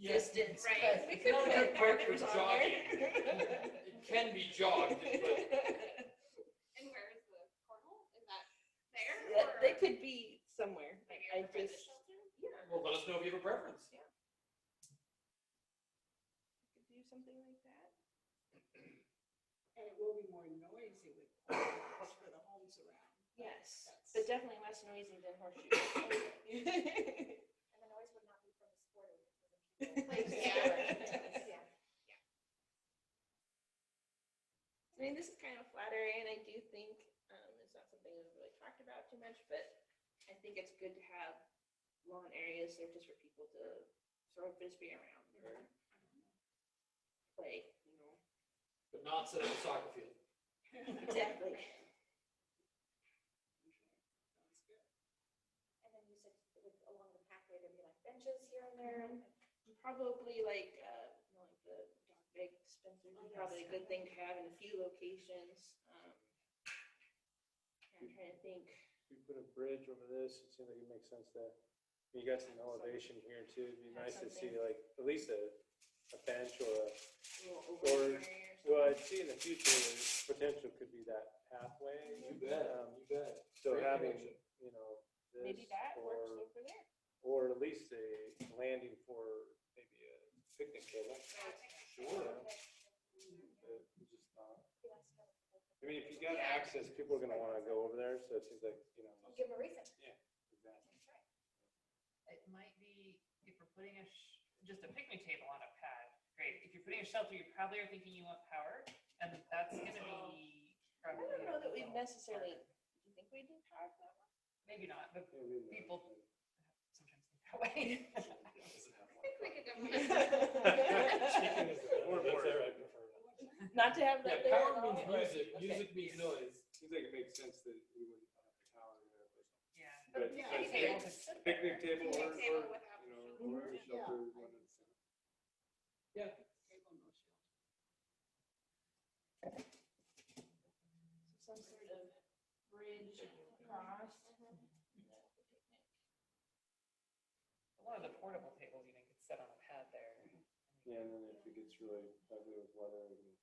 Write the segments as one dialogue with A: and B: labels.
A: distance,
B: Right.
A: but.
B: We could
A: No,
B: put
A: no,
B: markers
A: markers
B: on
A: there.
C: It can be jogged, but
B: And where is the cornhole? Is that there
A: Yeah,
B: or?
A: They could be somewhere,
B: maybe
A: I, I
B: over by the
A: just,
B: shelter?
A: yeah.
C: well, let us know if you have a preference.
A: we could Do something like that.
D: And it will be more noisy with cars for the homes around.
A: Yes,
D: That's-
A: but definitely less noisy than horseshoes.
E: And the noise would not be from the squirrel.
B: Like,
A: yeah.
E: Yeah.
A: I mean, this is kind of flattering, and I do think um, it's not something we've really talked about too much, but I think it's good to have lawn areas that are just for people to sort of just be around or play, you know.
C: But not set up a soccer field.
A: Exactly.
D: Sounds good.
E: And then you said with, along the pathway, there'd be like benches here and there. and-
A: Probably like, uh, you know, like the dog bag dispensers
E: Oh,
A: is probably a
E: yes.
A: good thing to have in a few locations. Um, I'm trying to think.
F: you put a bridge over this, it seems like it makes sense that, you got some elevation here too, it'd be
A: Have
F: nice to see
A: something.
F: like, at least a, a bench or a,
A: a little
F: Or-
A: overlay
F: well,
A: or
F: I'd see in the future, the potential could be that pathway. Um,
C: you bet.
F: So
C: Great
F: having,
C: connection.
F: you know,
A: something. Maybe
F: this
A: that works
F: or,
A: over there.
F: or at least a landing for maybe a picnic table.
C: Sure.
F: Uh, Just not,
E: Yes, no.
F: I mean, if you got
A: Yeah.
F: access, people are gonna wanna go over there, so it seems like, you know.
E: We'll Give them a reason. That's right.
G: it might be if we're putting a sh- just a picnic table on a pad. Great. If you're putting a shelter, you probably are thinking you want power, and that's going to be.
A: Oh. I
G: probably
A: don't know that
G: a
A: we've
G: little
A: necessarily, do
G: harder.
A: you think we did power that one?
G: Maybe not, but
F: yeah, we-
G: People- sometimes think that way.
B: I think we could definitely.
F: Chicken
C: is
F: Or-
C: that's
F: or-
C: there, I prefer.
A: Not to have
C: Yeah,
A: that there at
C: power
A: all?
C: means
A: or-
C: music,
A: okay.
C: music means noise.
F: Seems like it makes sense that we wouldn't have a tower there, but.
G: Yeah.
F: But
B: Yeah.
F: but
G: Table
F: pic-
G: to sit
F: Picnic
G: there.
F: table or,
B: Picnic table
F: or,
B: without
F: you know,
B: shelter.
F: or a
A: Mm-hmm.
D: Yeah, I
F: shelter. one of
D: think
F: the-
D: so.
C: Yeah.
D: Table, no shelter.
A: Some sort of bridge across.
G: One of the portable tables even could set on a pad there.
F: Yeah, and then if it gets really ugly with weather, we can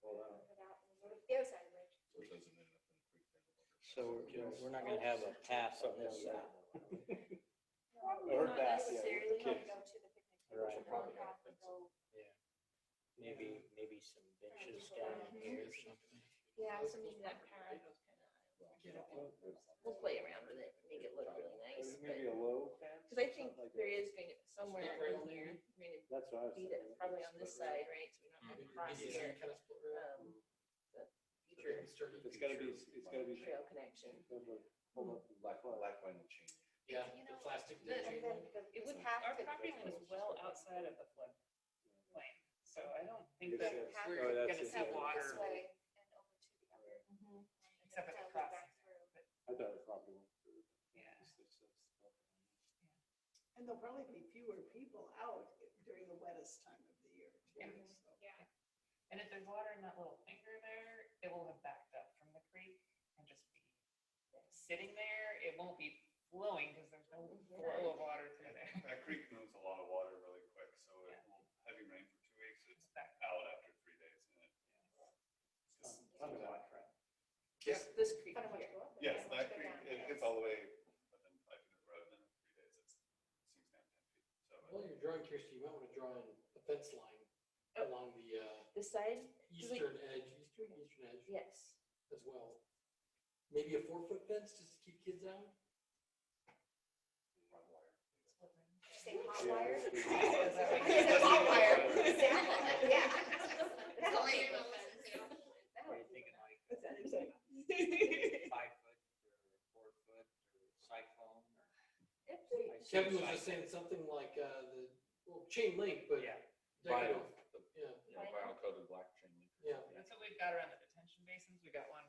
F: roll out.
E: Put it out and sort of The other side of the ridge.
H: so it doesn't end up in a creek.
F: Yes.
I: So we're- we're, we're not gonna have a path on
F: Something
I: this
F: like
I: side.
F: that.
A: Probably
F: I heard
A: not
F: that, yeah, with
A: necessarily.
F: the
E: Go
F: kids.
E: to the picnic. table.
I: Right.
E: We'll probably have to go-
I: Maybe, maybe some benches down here or something.
A: Yeah, so maybe that power goes kind of, we'll play around with it, make it look really nice, but,
F: Maybe a low fence?
A: because I think
F: something like
A: there
F: that.
A: is going to, somewhere in here, we're going to
F: That's what I was
A: beat
F: thinking.
A: it probably on this side, right? So we don't have to cross
C: Maybe
A: here,
C: some kind of split rail.
A: um, the future
C: Sturdy
F: It's gotta be, it's gotta be.
A: trail connection.
F: hold up- hold up and
H: Black,
F: black line.
H: black line will change.
C: Yeah,
E: You
C: the
E: know,
C: plastic.
G: the-
C: ditch.
E: And then the-
G: It would
E: the
G: have,
E: path
G: our
E: could-
G: property line is well outside of the flood plain, so I don't think
F: Yes,
G: that
F: yes.
G: we're
F: Oh,
G: going
F: that's
G: to
F: it,
G: see
F: yeah.
G: water.
E: This way and over to the other.
G: Except at
E: Down
G: the
E: back
G: crossing.
E: through.
F: I thought it probably went through.
G: Yeah.
F: It's just- it's-
D: And there'll probably be fewer people out during the wettest time of the year. too,
G: Yeah.
D: so.
G: And if there's water in that little finger there, it will have backed up from the creek and just be sitting there. It won't be flowing because there's no flow of water through there.
J: That creek moves a lot of water really quick, so it will, heavy rain for two weeks, it's back out after three days, and it.
F: it's not a lot, right?
A: This, this creek
E: I don't want
A: here.
E: to go up there.
J: Yes,
E: I
J: that
E: want to go
J: creek,
E: down.
J: it gets all the way within five feet of the road, and then in three days, it's, seems down ten feet, so. it-
C: Well, you're drawing, Kirsty, you might wanna draw in a fence line along the, uh,
A: This side,
C: eastern edge, eastern, eastern edge
A: yes.
C: as well. Maybe a four foot fence just to keep kids out?
J: Run wire.
E: Say hot
F: Yeah.
E: wire.
A: It's
E: a hot wire.
B: That's all you're gonna listen to.
E: That
I: What are
E: would be
I: you thinking, like,
A: Is that exact-
I: five foot or four foot or cyclone or?
A: Absolutely.
C: Kevin was just saying something like, uh, the, well, chain link, but.
I: Yeah.
C: That kind
H: Vinyl.
C: of- yeah,
H: Yeah, vinyl coated black chain link.
C: yeah.
G: That's what we've got around the detention basins. We got one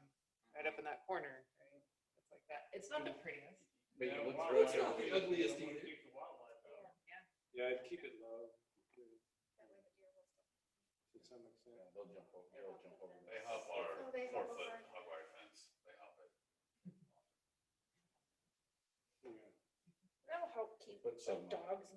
G: right up in that corner. right? It's like that. It's not the prettiest.
H: But you look
J: Yeah,
H: through it,
J: wildlife-
C: It's not the
J: you don't wanna
C: ugliest either.
J: keep the wildlife out.
F: Yeah, I'd keep it
E: that
F: low
E: way the deer will still-
F: to some extent.
H: yeah, they'll jump over, they'll jump over.
J: They hop our
E: Oh, they
J: four
E: hop
J: foot
E: over.
J: hot wire fence, they hop it.
F: Yeah.
A: That'll help keep
H: But
A: the
H: some, uh,
A: dogs